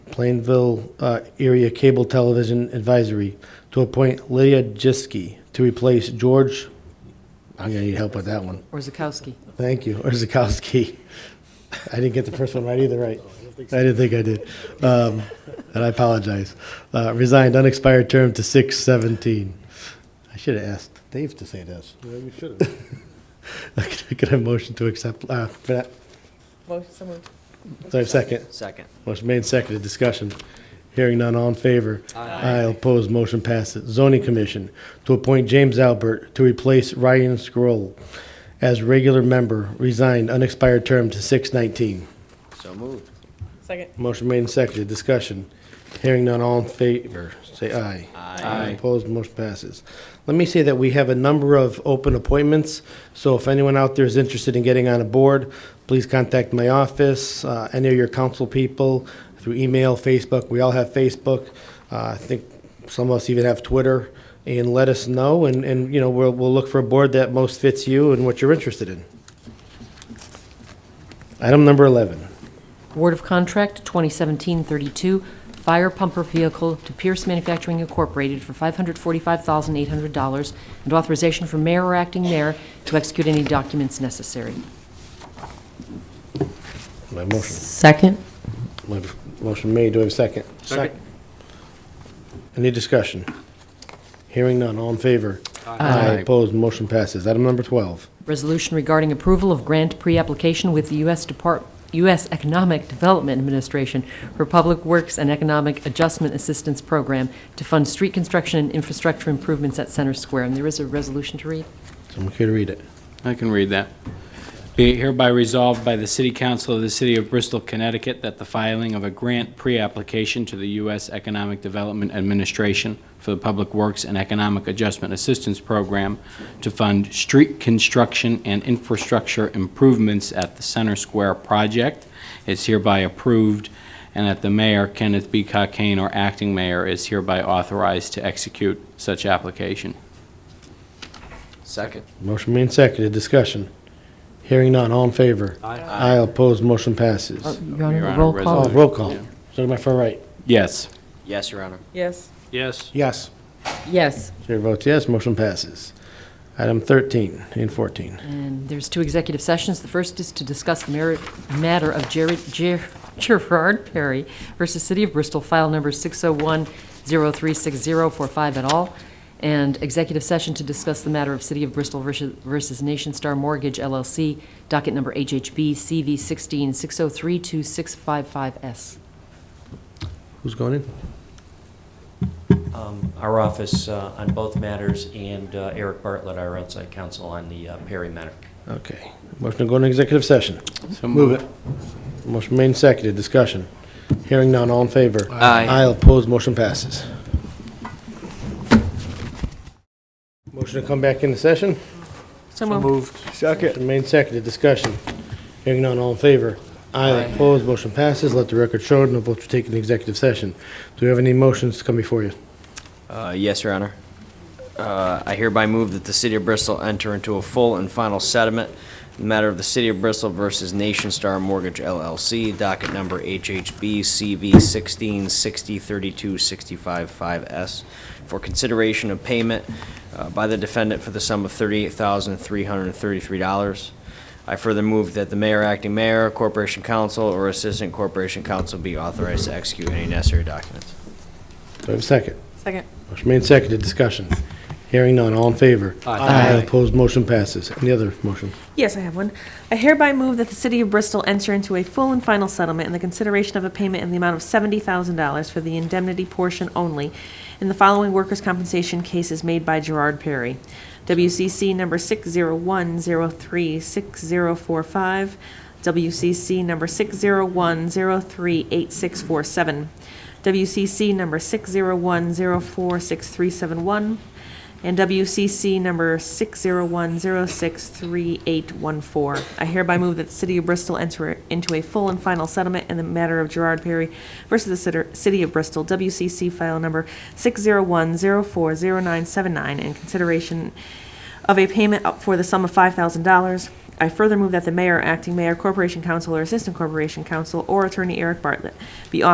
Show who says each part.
Speaker 1: Plainville uh, Area Cable Television Advisory to appoint Leah Jiski to replace George, I'm going to need help with that one.
Speaker 2: Or Zakowski?
Speaker 1: Thank you, or Zakowski. I didn't get the first one right either, right? I didn't think I did. Um, And I apologize. Uh, Resigned, unexpired term to 6/17. I should have asked Dave to say this.
Speaker 3: Yeah, you should have.
Speaker 1: Could I have a motion to accept, uh, for that?
Speaker 2: Motion, so moved.
Speaker 1: Sorry, second.
Speaker 4: Second.
Speaker 1: Motion made, and seconded, discussion. Hearing none, all in favor? Aye. opposed, motion passes. Zoning Commission, to appoint James Albert to replace Ryan Scroll as regular member, resigned, unexpired term to 6/19.
Speaker 4: So moved.
Speaker 2: Second.
Speaker 1: Motion made and seconded, discussion. Hearing none, all in favor, say aye. Aye. Opposed, motion passes. Let me say that we have a number of open appointments, so if anyone out there is interested in getting on a board, please contact my office, uh, any of your council people, through email, Facebook, we all have Facebook. Uh, I think some of us even have Twitter, and let us know, and, and, you know, we'll, we'll look for a board that most fits you and what you're interested in. Item number 11.
Speaker 2: Award of Contract 2017-32, Fire Pumper Vehicle to Pierce Manufacturing Incorporated for $545,800, and authorization for mayor or acting mayor to execute any documents necessary.
Speaker 1: My motion.
Speaker 2: Second.
Speaker 1: My Motion made, do I have a second? Second. Any discussion? Hearing none, all in favor? Aye. Opposed, motion passes. Item number 12.
Speaker 2: Resolution regarding approval of grant pre-application with the U.S. Depart, U.S. Economic Development Administration for Public Works and Economic Adjustment Assistance Program to fund street construction and infrastructure improvements at Center Square. And there is a resolution to read.
Speaker 1: Someone care to read it?
Speaker 5: I can read that. Be it hereby resolved by the City Council of the City of Bristol, Connecticut, that the filing of a grant pre-application to the U.S. Economic Development Administration for the Public Works and Economic Adjustment Assistance Program to fund street construction and infrastructure improvements at the Center Square project is hereby approved, and that the mayor, Kenneth B. Cockane, or acting mayor, is hereby authorized to execute such application.
Speaker 4: Second.
Speaker 1: Motion made, and seconded, discussion. Hearing none, all in favor? Aye. Opposed, motion passes.
Speaker 2: Your Honor,
Speaker 5: Your Honor,
Speaker 2: roll call.
Speaker 1: Oh, roll call. Start my far right.
Speaker 5: Yes.
Speaker 4: Yes, Your Honor.
Speaker 6: Yes,
Speaker 5: Yes.
Speaker 1: Yes.
Speaker 2: Yes.
Speaker 1: Chair votes yes, motion passes. Item 13 and 14.
Speaker 2: And there's two executive sessions. The first is to discuss the merit, matter of Jared, Ger- Gerard Perry versus City of Bristol, file number 601-036045 et al. And executive session to discuss the matter of City of Bristol versus versus Nation Star Mortgage LLC, docket number HHB CV 16603265S.
Speaker 1: Who's going in?
Speaker 7: Um, Our office uh, on both matters, and uh, Eric Bartlett, our outside counsel on the uh, Perry matter.
Speaker 1: Okay. Motion to go into executive session.
Speaker 5: So
Speaker 1: Move it. Motion made and seconded, discussion. Hearing none, all in favor?
Speaker 4: Aye.
Speaker 1: Aye, opposed, motion passes. Motion to come back into session?
Speaker 6: so moved.
Speaker 1: Motion made and seconded, discussion. Hearing none, all in favor? Aye, opposed, motion passes. Let the record show, no votes were taken in executive session. Do we have any motions to come before you?
Speaker 4: Uh, Yes, Your Honor. Uh, I hereby move that the City of Bristol enter into a full and final settlement in the matter of the City of Bristol versus Nation Star Mortgage LLC, docket number HHB CV 16603265-5S, for consideration of payment uh, by the defendant for the sum of $38,333. I further move that the mayor, acting mayor, corporation counsel, or assistant corporation counsel be authorized to execute any necessary documents.
Speaker 1: Do I have a second?
Speaker 6: Second.
Speaker 1: Motion made and seconded, discussion. Hearing none, all in favor? Aye. Opposed, motion passes. Any other motion?
Speaker 6: Yes, I have one. I hereby move that the City of Bristol enter into a full and final settlement in the consideration of a payment in the amount of $70,000 for the indemnity portion only in the following workers' compensation cases made by Gerard Perry. WCC number 601036045, WCC number 601038647, WCC number 601046371, and WCC number 601063814. I hereby move that the City of Bristol enter into a full and final settlement in the matter of Gerard Perry versus the Citer- City of Bristol, WCC file number 601040979, in consideration of a payment up for the sum of $5,000. I further move that the mayor, acting mayor, corporation counsel, or assistant corporation counsel, or attorney Eric Bartlett be authorized